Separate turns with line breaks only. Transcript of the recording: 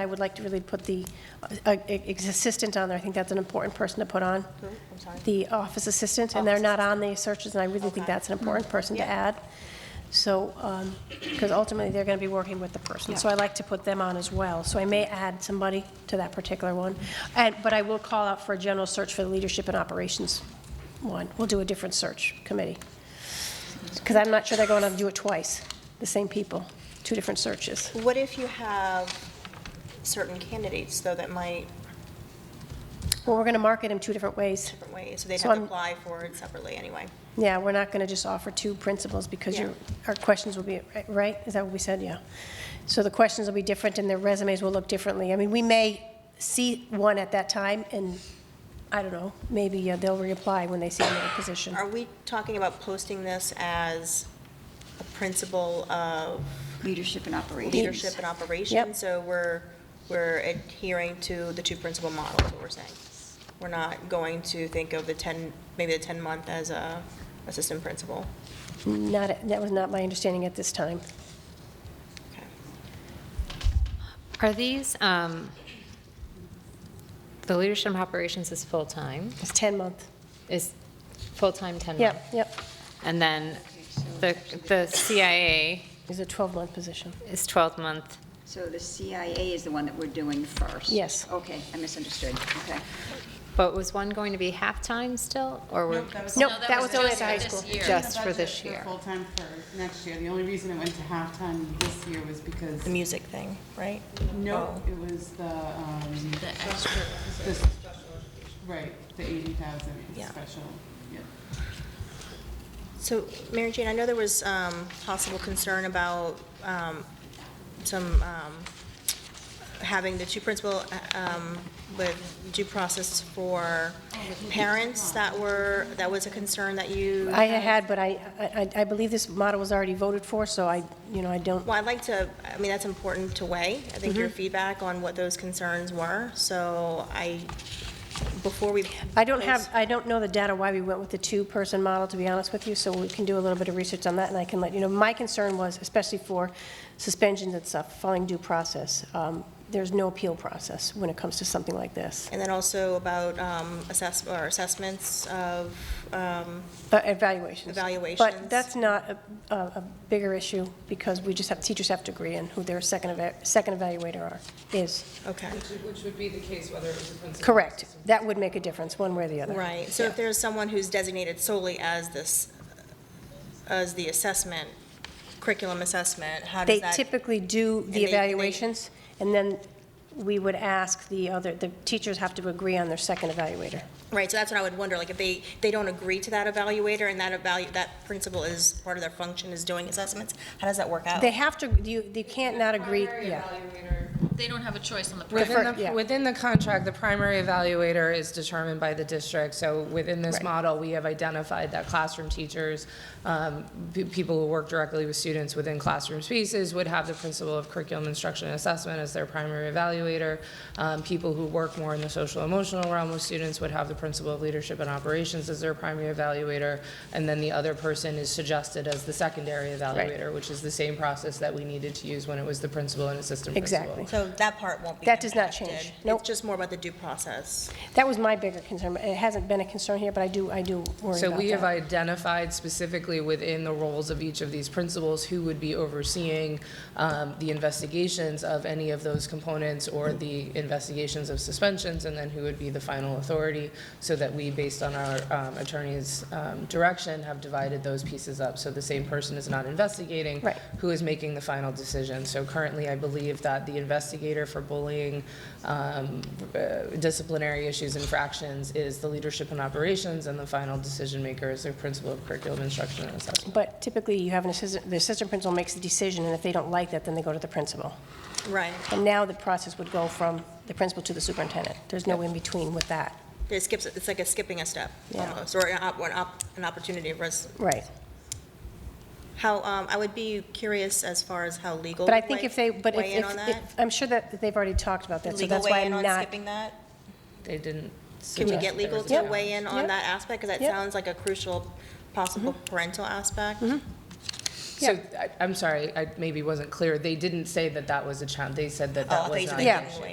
I would like to really put the uh, ex- assistant on there. I think that's an important person to put on. The office assistant, Mm-hmm. and they're not on the searches, and I really think that's an important person to add. So, because ultimately, they're going to be working with the person. So I like to put them on as well. So I may add somebody to that particular one. And, but I will call out for a general search for the leadership and operations one. We'll do a different search committee. Because I'm not sure they're going to do it twice, the same people, two different searches.
What if you have certain candidates, though, that might,
Well, we're going to market them two different ways.
different ways, so they'd
So
have to
I'm-
apply for it separately anyway?
Yeah, we're not going to just offer two principles because
Yeah.
your, our questions will be, right- right? Is that what we said? Yeah. So the questions will be different and their resumes will look differently. I mean, we may see one at that time and, I don't know, maybe uh, they'll reapply when they see another position.
Are we talking about posting this as a principle of
Leadership and operations.
leadership and operations?
Yep.
So we're, we're adhering to the two principal models, what we're saying? We're not going to think of the 10, maybe the 10-month as a assistant principal?
Not, that was not my understanding at this time.
Okay.
Are these, um, the leadership operations is full-time,
It's 10-month.
is full-time 10 month?
Yep, yep.
And then the, the CIA
It's a 12-month position.
is 12 month.
So the CIA is the one that we're doing first?
Yes.
Okay, I misunderstood, okay.
But was one going to be half-time still, or were?
No, that was only at the high school.
Just for
Budget
this year.
full-time for next year. The only reason it went to halftime this year was because,
The
Oh.
music thing, right?
no, it was the, um. The extra. Right, the eighty thousand
Yeah.
special, yeah.
So, Mary Jane, I know there was um, possible concern about um, some, um, having the two principal um, with due process for parents that were, that was a concern that you,
I had, but I, I- I believe this model was already voted for, so I, you know, I don't,
well, I'd like to, I mean, that's important to weigh. I think your
Mm-hmm.
feedback on what those concerns were, so I, before we.
I don't have, I don't know the data why we went with the two-person model, to be honest with you, so we can do a little bit of research on that, and I can let you know. My concern was, especially for suspensions and stuff, following due process, um, there's no appeal process when it comes to something like this.
And then also about um, assess, or assessments of, um,
Uh, Evaluations. But
Evaluations.
that's not a, a a bigger issue, because we just have, teachers have to agree on who their second, eva- second evaluator are, is.
okay.
Which would be the case whether it was a principal.
Correct. That would make a difference, one way or the other.
Right, so if there's someone who's designated solely as this, as the assessment, curriculum assessment, how
They
does that?
typically do
they-
the
they-
evaluations, and then we would ask the other, the teachers have to agree on their second evaluator.
Right, so that's what I would wonder, like, if they, they don't agree to that evaluator, and that evalu, that principal is, part of their function is doing assessments, how does that work out?
They have to, you, they can't not agree, yeah.
They don't have a choice on the
Refer-
Within
yeah.
the, within the contract, the primary evaluator is determined by the district. So within this
Right.
model, we have identified that classroom teachers, um, pe- people who work directly with students within classroom spaces would have the principal of curriculum instruction and assessment as their primary evaluator. Um, People who work more in the social emotional realm with students would have the principal of leadership and operations as their primary evaluator. And then the other person is suggested as the secondary evaluator, which is the same process that we needed to use when it was the principal and assistant principal.
Exactly.
So that part won't be.
That does not
impacted.
change. Nope.
It's just more about the due process.
That was my bigger concern. It hasn't been a concern here, but I do, I do worry
So
about
we have
that.
identified specifically within the roles of each of these principals who would be overseeing um, the investigations of any of those components or the investigations of suspensions, and then who would be the final authority, so that we, based on our um, attorney's um, direction, have divided those pieces up. So the same person is not investigating.
Right.
Who is making the final decision. So currently, I believe that the investigator for bullying, um, uh, disciplinary issues, infractions is the leadership and operations, and the final decision maker is the principal of curriculum instruction and assessment.
But typically, you have an assistant, the assistant principal makes the decision, and if they don't like that, then they go to the principal.
Right,
And now the process would go from the principal to the superintendent. There's no in-between with that.
it skips, it's like a skipping a step,
Yeah.
almost, or an op, or an op, an opportunity for us.
Right.
How, um, I would be curious as far as how legal.
But I
would
think
weigh-
if they, but if-
weigh in on
if,
that?
if- I'm sure that they've already talked about that, so
Legal
that's why
weigh in
I'm
on
not.
skipping that?
They
Can
didn't
we get
suggest there
legal
was a
to
challenge.
weigh in on
Yep.
that aspect? Because that
Yep.
Mm-hmm. Uh, sounds like a crucial possible parental aspect.
So, I- I'm sorry, I maybe wasn't clear. They didn't say that that was a challenge. They said that that
Oh,
was
they
not.
they
Yeah.
didn't wait.